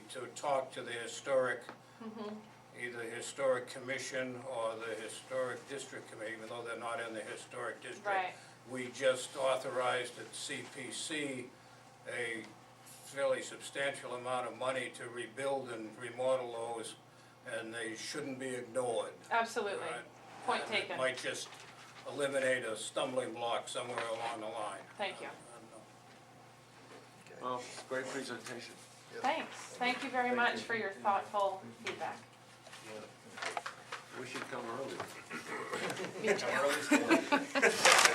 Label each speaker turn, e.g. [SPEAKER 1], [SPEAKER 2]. [SPEAKER 1] to talk to the historic,
[SPEAKER 2] Mm-hmm.
[SPEAKER 1] either historic commission or the historic district committee, even though they're not in the historic district.
[SPEAKER 2] Right.
[SPEAKER 1] We just authorized at CPC a fairly substantial amount of money to rebuild and remodel those, and they shouldn't be ignored.
[SPEAKER 2] Absolutely.
[SPEAKER 1] Right.
[SPEAKER 2] Point
[SPEAKER 1] And it
[SPEAKER 2] taken.
[SPEAKER 1] Might just eliminate a stumbling block somewhere along the line.
[SPEAKER 2] Thank you.
[SPEAKER 1] I don't know.
[SPEAKER 3] Well, great presentation.
[SPEAKER 2] Thanks. Thank you very much for your thoughtful feedback.
[SPEAKER 3] We should come early.
[SPEAKER 4] Our early school.